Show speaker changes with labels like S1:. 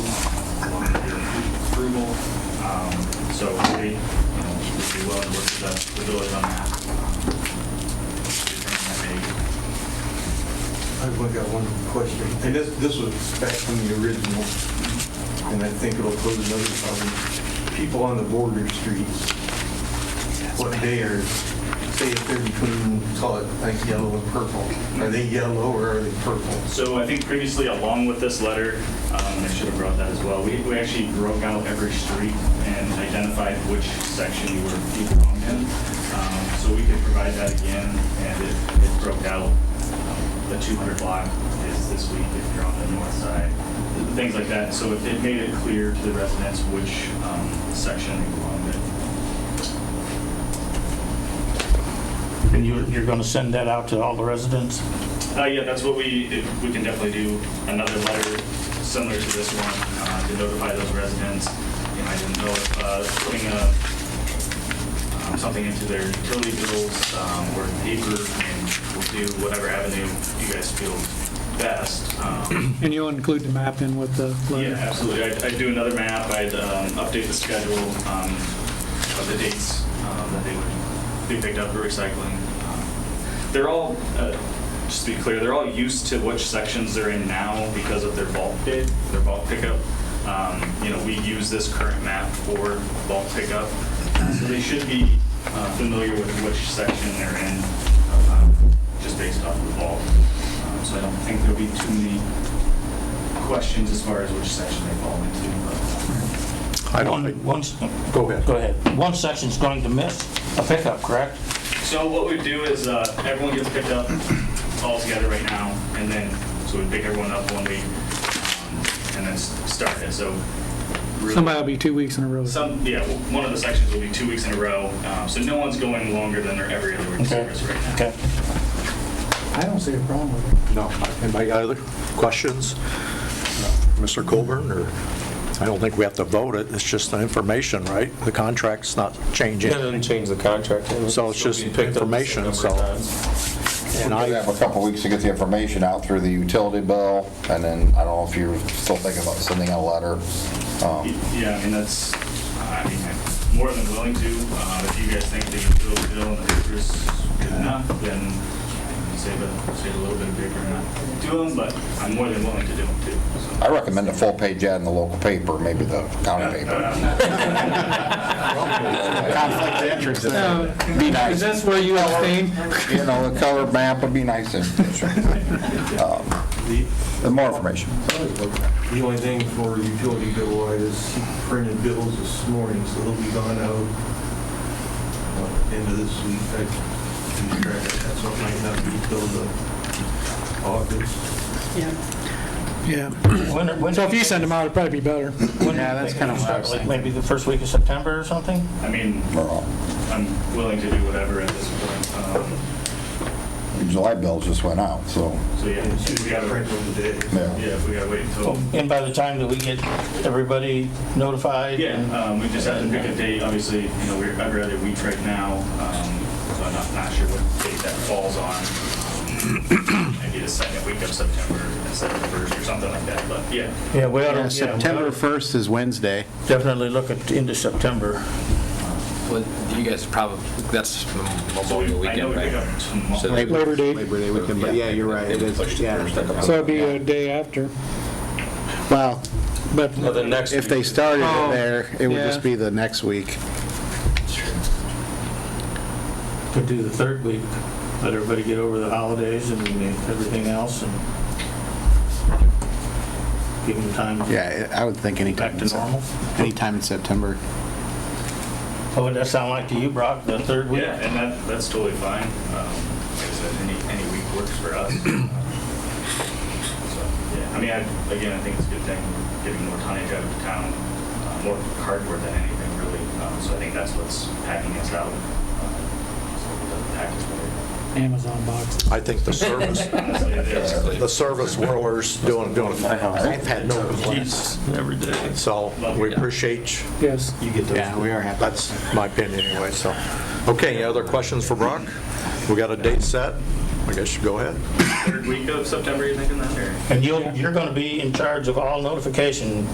S1: property, Um, you know, we'd be willing to work with the- the village on that. Um, Determine that maybe.
S2: I've only got one question, and this, this was back from the original, and I think it'll pose another problem. People on the border streets, what they are, say if they're between, call it like yellow and purple, are they yellow or are they purple?
S1: So I think previously, along with this letter, um, and I should have brought that as well, we we actually broke out every street and identified which section you were, you belonged in. Um, So we could provide that again, and it it broke out, um, the 200 block is this week if you're on the north side, things like that. So it it made it clear to the residents which um, section they belonged in.
S3: And you're, you're going to send that out to all the residents?
S1: Uh, yeah, that's what we, if- we can definitely do another letter similar to this one, uh, to notify those residents. You know, I didn't know if, uh, putting a, um, something into their utility bills, um, or paper, and we'll do whatever avenue you guys feel best. Um,
S4: And you'll include the map in with the
S1: Yeah,
S4: letter?
S1: absolutely. I'd, I'd do another map, I'd, um, update the schedule, um, of the dates, um, that they would be picked up for recycling. Um, They're all, uh, just to be clear, they're all used to which sections they're in now because of their bulk bid, their bulk pickup. Um, you know, we use this current map for bulk pickup, so they should be, uh, familiar with which section they're in, um, just based off the bulk. Um, So I don't think there'll be too many questions as far as which section they fall into, but
S3: I don't. Once,
S5: Go ahead.
S3: go ahead. One section's going to miss a pickup, correct?
S1: So what we do is, uh, everyone gets picked up all together right now, and then, so we pick everyone up one week, um, and then s- start it, so. really-
S4: Somebody will be two weeks in a row.
S1: Some, yeah, w- one of the sections will be two weeks in a row, um, so no one's going longer than their every other week
S3: Okay.
S1: service right now.
S3: Okay.
S6: I don't see a problem with it.
S5: No. Anybody got other questions? Uh, Mr. Colburn, or, I don't think we have to vote it, it's just the information, right? The contract's not changing.
S7: Yeah, It doesn't change the contract.
S5: So it's just
S7: Picked up the same
S5: information,
S7: number of
S5: so-
S7: times.
S5: And
S8: We
S5: I,
S8: have a couple weeks to get the information out through the utility bill, and then I don't know if you're still thinking about sending a letter.
S1: Y-
S8: Um,
S1: Yeah, I mean, that's, I mean, I'm more than willing to, uh, if you guys think the utility bill and the paper is good enough, then you can save a, save a little bit of paper and not do them, but I'm more than willing to do them too, so.
S8: I recommend a full-page ad in the local paper, maybe the county paper. Conflict of interest,
S9: Oh,
S4: Uh,
S8: that'd be nice.
S4: Is this where you abstain?
S8: You know, a colored map would be nice. and- Um, the More information.
S2: The only thing for utility bill wise is he printed bills this morning, so they'll be gone out uh, end of this week. I can track it. That's what might not be till the August.
S4: Yeah.
S3: When, when,
S4: So if you send them out, it'd probably be better.
S3: when? Yeah, that's kind of what Maybe the first week of September or something?
S1: I mean,
S8: We're all-
S1: I'm willing to do whatever at this point, um,
S8: July bills just went out, so,
S1: so yeah, if we
S2: I
S1: gotta,
S2: print them today.
S8: yeah.
S1: yeah, if we gotta wait until,
S3: And by the time that we get everybody notified?
S1: yeah, um, we just have to pick a date, obviously, you know, we're, every other week right now, um, so I'm not, not sure what date that falls on. Maybe the second week of September, instead of the first or something like that, but yeah.
S3: Yeah, we ought to.
S9: Yeah, September 1st is Wednesday.
S3: Definitely look at, into September.
S10: Well, you guys probably, that's
S1: So we-
S10: Memorial
S1: I know
S10: Weekend,
S1: we
S10: right?
S1: pick up tomorrow.
S10: So-
S4: Labor Day.
S9: Labor Day weekend, but yeah, you're right, it is, yeah.
S4: So it'd be a day after,
S9: Well,
S4: but
S7: Well, the next
S9: if they
S7: week-
S9: started
S4: Oh,
S9: it there, it would
S4: yeah.
S9: just be the next week.
S3: Could do the third week, let everybody get over the holidays and everything else and give them time to get
S9: Yeah, I I would think anytime.
S3: back to
S9: in Sep-
S3: normal.
S9: Anytime in September.
S3: What would that sound like to you, Brock, the third week?
S1: Yeah, and that, that's totally fine. Um, Like I said, any, any week works for us. So, yeah, I mean, I, again, I think it's a good thing, we're getting more tonnage out of town, uh, more cardboard than anything really. Um, So I think that's what's packing us out. Um, So it doesn't pack us more.
S4: Amazon box.
S5: I think the service,
S1: Honestly, it is.
S5: the service whirlers doing, doing, I've had no complaints.
S7: Every day.
S5: So we appreciate, you.
S4: Yes.
S9: Yeah, we are happy.
S5: that's my opinion anyway, so. Okay, any other questions for Brock? We got a date set? I guess you go ahead.
S1: Third week of September, you thinking that, or?
S3: And you'll, you're going to be in charge of all notification